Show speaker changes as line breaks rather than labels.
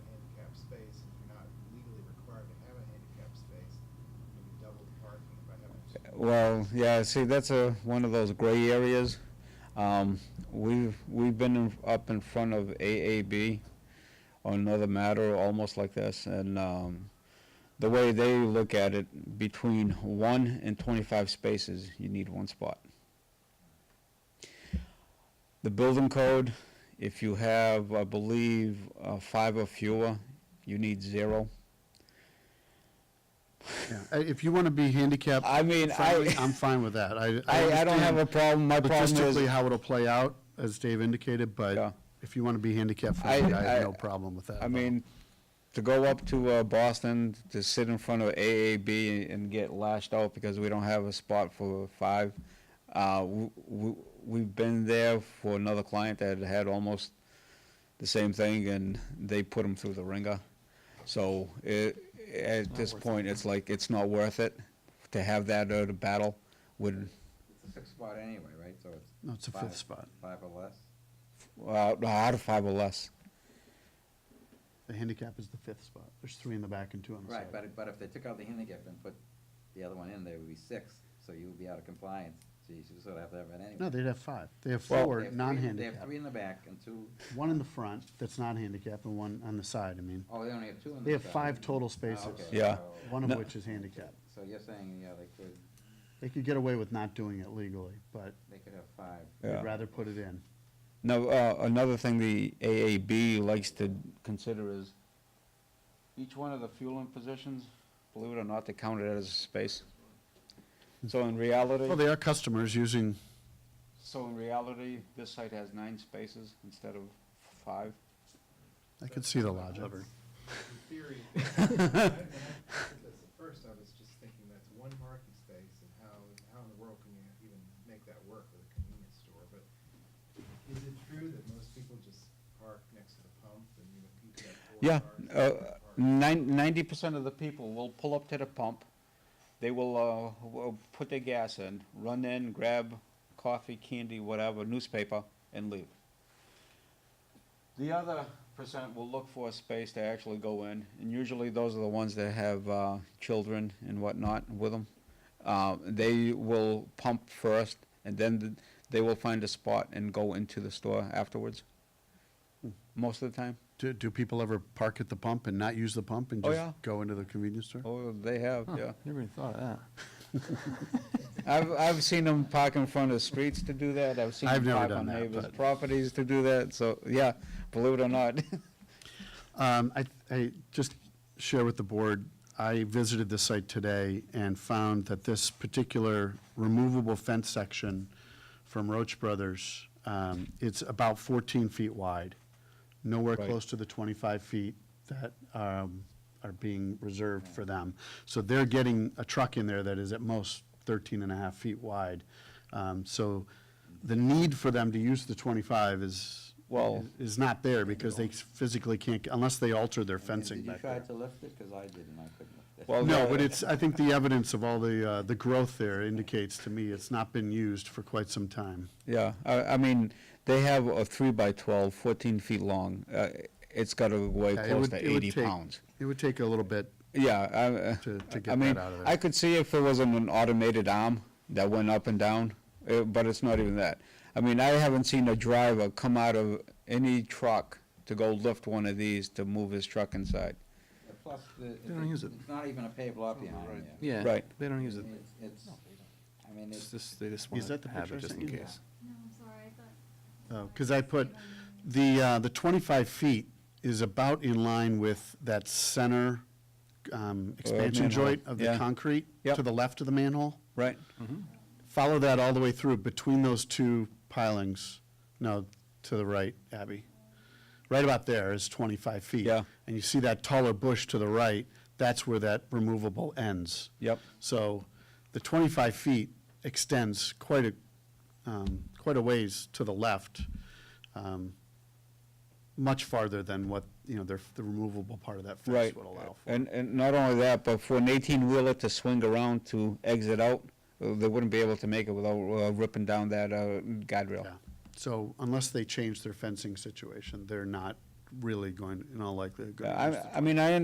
Well, yeah, see, that's a, one of those gray areas. Um, we've, we've been in- up in front of AAB on another matter almost like this, and, um, the way they look at it, between one and twenty-five spaces, you need one spot. The building code, if you have, I believe, uh, five or fewer, you need zero.
Yeah, I- If you want to be handicapped,
I mean,
friendly,
I,
I'm fine with that. I,
I, I don't have a
understand
problem, my problem is.
Logistically, how it'll play out, as Dave indicated,
Yeah.
but if you want to be handicapped
I-
friendly, I
I-
have no problem with that. at
I
all.
mean, to go up to uh, Boston to sit in front of AAB and get lashed out because we don't have a spot for five. Uh, we, we've been there for another client that had almost the same thing, and they put them through the ringer. So it, at this point, it's like it's not worth it to have that out of battle. Would
It's a sixth spot anyway, right? So it's
No, it's a
Five.
fifth spot.
five or less.
uh, out of five or less.
The handicap is the fifth spot. There's three in the back and two on the side.
Right, but, but if they took out the handicap and put the other one in, there would be six, so you would be out of compliance. So you sort of have to have it anyway.
No, they'd have five. They have
Well-
They
four
have three- They have
non-handicapped,
three in the back and two,
one in the front that's not handicapped and one on the side, I mean.
oh, they only have two in the.
They have
side.
five total
Ah,
spaces.
okay,
Yeah.
so-
One
No.
of which is handicapped.
So you're saying, yeah, they could,
They could get away with not doing it legally, but
they could have five.
Yeah.
they'd rather put it in.
Now, uh, another thing the AAB likes to consider is each one of the fueling positions, believe it or not, they count it as a space. So in
Well,
reality,
they are customers using,
so in reality, this site has nine spaces instead of five.
I could see the logic.
In theory, I- when I heard this at first, I was just thinking that's one parking space and how, how in the world can you even make that work with a convenience store? But is it true that most people just park next to the pump and you have people that four
Yeah,
cars?
uh,
that park?
nine- 90% of the people will pull up to the pump, they will, uh, will put their gas in, run in, grab coffee, candy, whatever, newspaper, and leave. The other percent will look for a space to actually go in, and usually those are the ones that have uh, children and whatnot with them. Uh, They will pump first, and then th- they will find a spot and go into the store afterwards, most of the time.
Do, do people ever park at the pump and not use the pump and
Oh,
just
yeah.
go into the convenience store?
Oh, they have, yeah.
Never even thought of that.
I've, I've seen them park in front of streets to do that, I've seen
I've
them
never
park
done
on
that,
neighbors'
but-
properties to do that, so, yeah, believe it or not.
Um, I, I just share with the board, I visited the site today and found that this particular removable fence section from Roach Brothers, um, it's about fourteen feet wide, nowhere
Right.
close to the twenty-five feet that, um, are being reserved for them. So they're getting a truck in there that is at most 13 and a half feet wide. Um, so the need for them to use the twenty-five is,
Well-
is not there because they physically can't, unless they alter their fencing back
Did you
there.
try to lift it? Because I did and I couldn't lift it.
Well,
No, but it's, I think the evidence of all the, uh, the growth there indicates to me it's not been used for quite some time.
Yeah, I, I mean, they have a three by twelve, fourteen feet long, uh, it's gotta weigh
Yeah, it
close
would-
to
it would
eighty
take-
pounds.
It would take a little bit.
Yeah, I, uh,
To- to
I
get
mean,
that out of there.
I could see if it wasn't an automated arm that went up and down, eh, but it's not even that. I mean, I haven't seen a driver come out of any truck to go lift one of these to move his truck inside.
And Plus, the- it-
don't use it.
it's not even a paved lot behind you.
Yeah.
Right.
They don't use it.
It's- It's, I mean,
It's
it's,
just, they just
Is that
want
the
to have
picture I
it just
sent
in
you?
case.
No, I'm sorry, I thought.
Because I put, the, uh, the 25 feet is about in line with that center um, expansion
manhole,
joint of the
yeah.
concrete to
Yep.
the left of the manhole.
Right.
Mm-hmm.
Follow that all the way through between those two pilings, no, to the right, Abby. Right about there is 25 feet.
Yeah.
And you see that taller bush to the right, that's where that removable ends.
Yep.
So the 25 feet extends quite a, um, quite a ways to the left, um, much farther than what, you know, the the removable part of that fence
Right.
would allow for.
And, and not only that, but for an eighteen-wheeler to swing around to exit out, uh, they wouldn't be able to make it without uh, ripping down that uh, guardrail.
Yeah. So unless they change their fencing situation, they're not really going, in all likelihood,
Uh,
going to use the
I, I mean, I